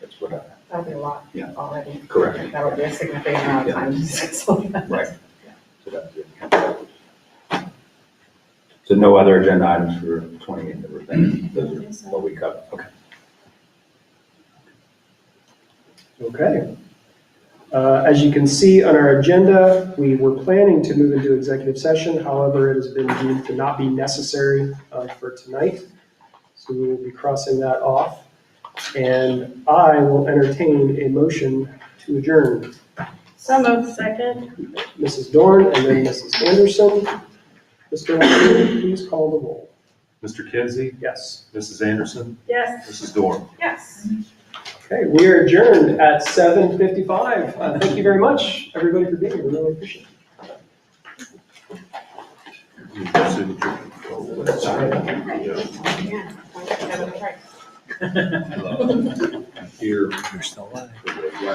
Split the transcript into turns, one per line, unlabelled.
years, whatever.
That'll be a lot
Yeah.
already.
Correct.
That'll be a significant amount of time. So
Right. So that's it. So no other agenda items for 28 that were thinking, those are what we covered. Okay.
Okay. Uh, As you can see on our agenda, we were planning to move into executive session. However, it has been deemed to not be necessary uh, for tonight. So we will be crossing that off. And I will entertain a motion to adjourn.
Some of second.
Mrs. Dorn and then Mrs. Anderson. Mr. Lawson, please call the roll.
Mr. Kinsey,
Yes.
Mrs. Anderson,
Yes.
Mrs. Dorn.
Yes.
Okay, we are adjourned at 7:55. Uh, Thank you very much, everybody, for being here. We Really appreciate it.
Yeah.
Yeah.
Here. You're still alive.